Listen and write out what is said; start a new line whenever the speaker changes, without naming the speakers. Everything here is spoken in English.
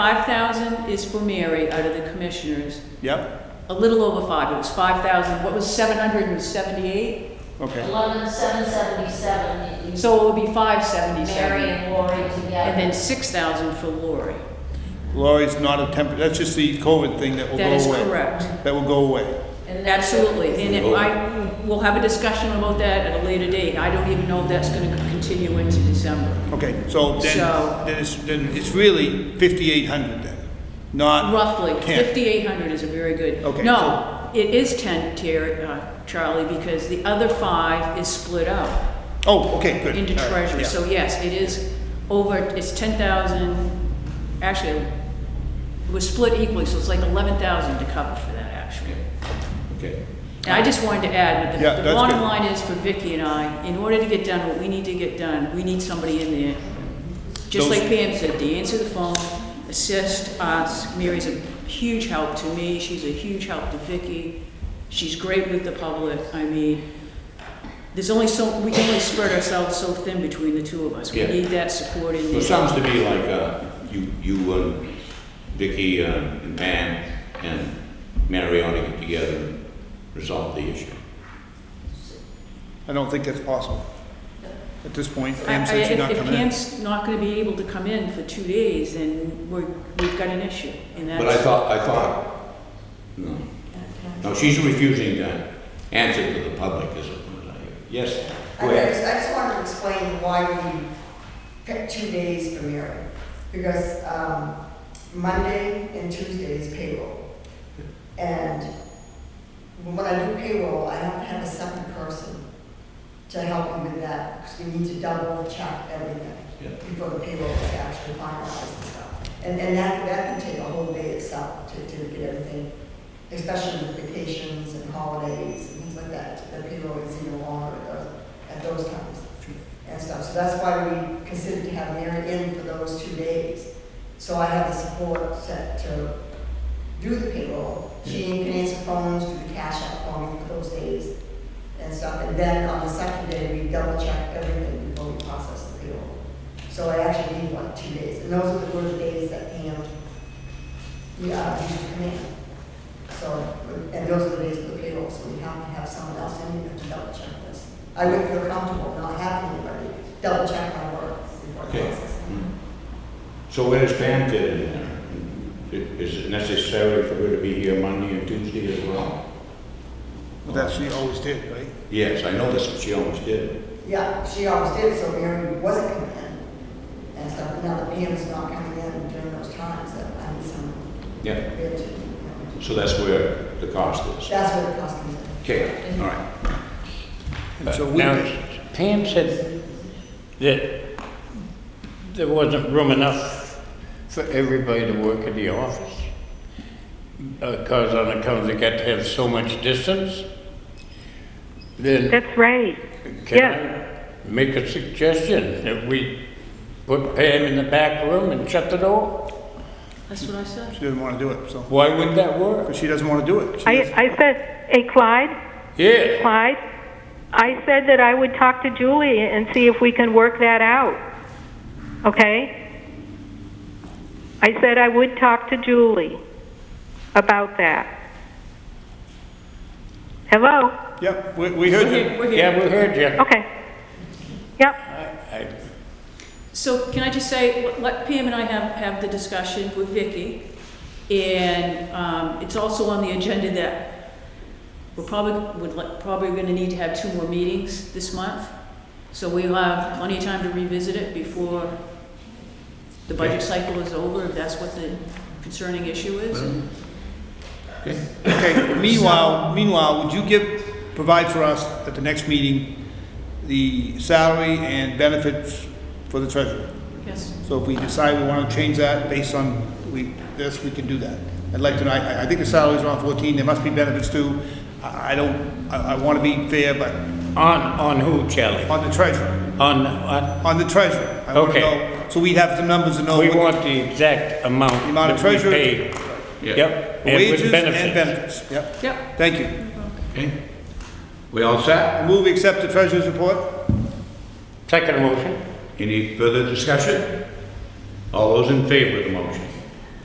Five thousand is for Mary out of the commissioners,
Yep,
a little over five, it was five thousand, what was seven hundred and seventy-eight?
okay.
Eleven seven seventy-seven, you
So it would be five
Mary
seventy-seven.
and Lori
And
together.
then six thousand for Lori.
Lori's not a temp, that's just the COVID thing that will go
That
away.
is correct.
That will go away.
And then-
Absolutely, and it- I, we'll have a discussion about that at a later date. I don't even know if that's gonna continue into December.
Okay, so then,
So-
then it's, then it's really fifty-eight hundred then, not.
Roughly,
Ten.
fifty-eight hundred is a very good.
Uh, Okay,
No, it is ten, Terry, uh, Charlie, because the other five is split out.
Oh, okay, good.
into
All right,
treasury,
yeah.
so yes, it is over, it's ten thousand, actually, it was split equally, so it's like eleven thousand to cover for that, actually.
Okay.
And I just wanted to add, that
Yeah,
the- the
that's
bottom
good.
line is for Vicky and I, in order to get done what we need to get done, we need somebody in there. Just
Those-
like Pam said, to answer the phone, assist us, Mary's a huge help to me, she's a huge help to Vicky, she's great with the public, I mean, there's only so, we can only spread ourselves so thin between the two of us, we
Yeah.
need that support in
Well, it
there.
sounds to me like uh, you, you, um, Vicky, uh, and Pam, and Mary ought to get together and resolve the issue.
I don't think that's possible. At this point,
I- I-
Pam said she's not
if-
coming
If
in.
Pam's not gonna be able to come in for two days, then we're, we've got an issue, and that's.
But I thought, I thought, no, no, she's refusing to answer to the public, is it? Yes,
I
go
mean, I
ahead.
just, I just wanted to explain why we picked two days for Mary. Because, um, Monday and Tuesday is payroll. And when I do payroll, I have to have a second person to help me with that, because we need to double check everything
Yeah.
before the payroll is actually finalized and stuff. And, and that, that can take a whole day itself to, to get everything, especially with vacations and holidays and things like that. The payroll is even longer at those, at those times and stuff. So that's why we considered to have Mary in for those two days. So I have the support set to do the payroll. She can answer phones, do the cash out for me for those days and stuff. And then on the second day, we double check everything before we process the payroll. So I actually need like two days. And those are the work days that Pam, yeah, used to come in. So, and those are the days for the payroll, so we have to have someone else in here to double check this. I wouldn't feel comfortable not having anybody double check my work before
Okay.
processing.
Mm. So where does Pam fit in there? I- Is it necessary for her to be here Monday and Tuesday as well?
Well, That's what she always did, right?
Yes, I know that's what she always did.
Yeah, she always did, so Mary wasn't coming in and stuff, but now that Pam's not coming in during those times, that I need some,
Yeah,
bit to, you know,
so that's where the cost is.
that's what it cost me.
Okay, all right.
And so we
Now,
did.
Pam said that there wasn't room enough for everybody to work in the office. Because on account they got to have so much distance. Then
That's right.
can
Yeah,
I make a suggestion that we put Pam in the back room and shut the door?
That's what I said.
She doesn't want to do it, so,
Why wouldn't that work?
but she doesn't want to do it. She
I,
doesn't-
I said, hey Clyde,
Yeah,
Clyde, I said that I would talk to Julie and see if we can work that out. Okay? I said I would talk to Julie about that. Hello?
Yep, we, we heard you.
We're here.
yeah, we heard you.
Okay. Yep.
I-
So can I just say, let Pam and I have, have the discussion with Vicky, and um, it's also on the agenda that we're probably, would, li- probably gonna need to have two more meetings this month, so we'll have plenty of time to revisit it before the budget cycle is over, if that's what the concerning issue is. and-
Okay, meanwhile, meanwhile, would you give, provide for us at the next meeting, the salary and benefits for the treasurer?
Yes,
So if we decide we want to change that based on we, this, we can do that. I'd like to, know- I, I think the salary's around fourteen, there must be benefits too. I, I don't, I, I want to be fair, but
On, on who, Charlie?
on the treasurer,
On, on,
on the treasurer. I wanna
Okay.
know- So we'd have some numbers to know.
We
what the-
want the exact amount
The amount of
that we
treasure-
paid. Yep. and with
Wages and benefits, yep.
yep,
Thank you.
Okay. We all set?
I move we accept the treasurer's report.
Second motion.
Any further discussion? All those in favor of the motion?